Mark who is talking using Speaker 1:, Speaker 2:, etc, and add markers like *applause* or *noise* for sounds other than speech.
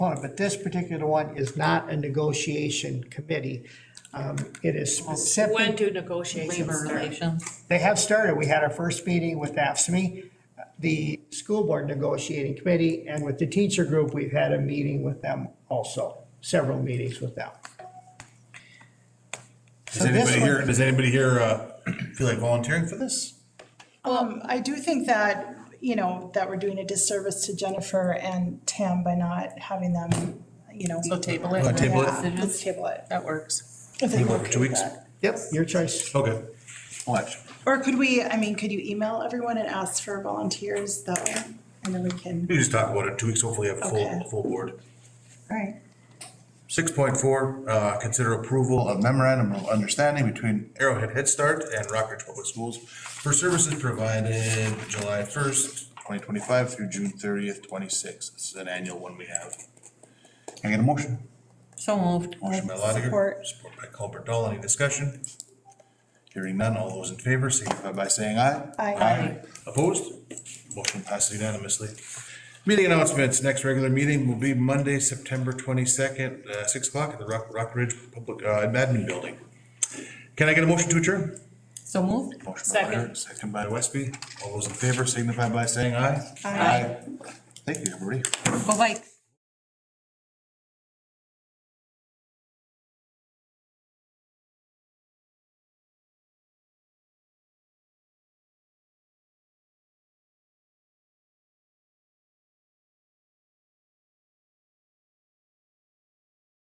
Speaker 1: component, but this particular one is not a negotiation committee. Um, It is
Speaker 2: When
Speaker 1: specific,
Speaker 2: do negotiations
Speaker 3: Labor
Speaker 2: start?
Speaker 3: relations.
Speaker 1: they have started, we had our first meeting with AFSMI, the school board negotiating committee, and with the teacher group, we've had a meeting with them also, several meetings with them.
Speaker 4: Does
Speaker 1: So this
Speaker 4: anybody
Speaker 1: one-
Speaker 4: here, does anybody here uh, *clears throat* feel like volunteering for this?
Speaker 5: Um, I do think that, you know, that we're doing a disservice to Jennifer and Tam by not having them, you know.
Speaker 3: So table it.
Speaker 4: Wanna Uh, table it?
Speaker 5: Yeah, Let's table it.
Speaker 3: That works.
Speaker 5: if they're
Speaker 4: Table it for
Speaker 5: okay
Speaker 4: two
Speaker 5: with
Speaker 4: weeks?
Speaker 5: that.
Speaker 1: Yep, your choice.
Speaker 4: Okay. Watch.
Speaker 5: Or could we, I mean, could you email everyone and ask for volunteers that way? And then we can,
Speaker 4: We just talk about it in two weeks, hopefully have a full,
Speaker 5: Okay.
Speaker 4: full board.
Speaker 5: all right.
Speaker 4: Six point four, uh, consider approval of memorandum of understanding between Arrowhead Head Start and Rockridge Public Schools for services provided July first, twenty twenty-five through June thirtieth, twenty-six. This is an annual one we have. Can I get a motion?
Speaker 3: So moved.
Speaker 4: Motion by Lotiger,
Speaker 5: Support.
Speaker 4: support by Colbert Dahl. Any discussion? Hearing none. All those in favor signify by saying aye.
Speaker 5: Aye.
Speaker 4: Opposed? Motion passes unanimously. Meeting announcements. Next regular meeting will be Monday, September twenty-second, uh, six o'clock at the Rock, Rock Ridge Public, uh, Admin Building. Can I get a motion to adjourn?
Speaker 3: So moved.
Speaker 4: Motion by Lotiger, second by Westby. All those in favor signify by saying aye. Aye. Thank you, everybody.
Speaker 3: Go Vikes.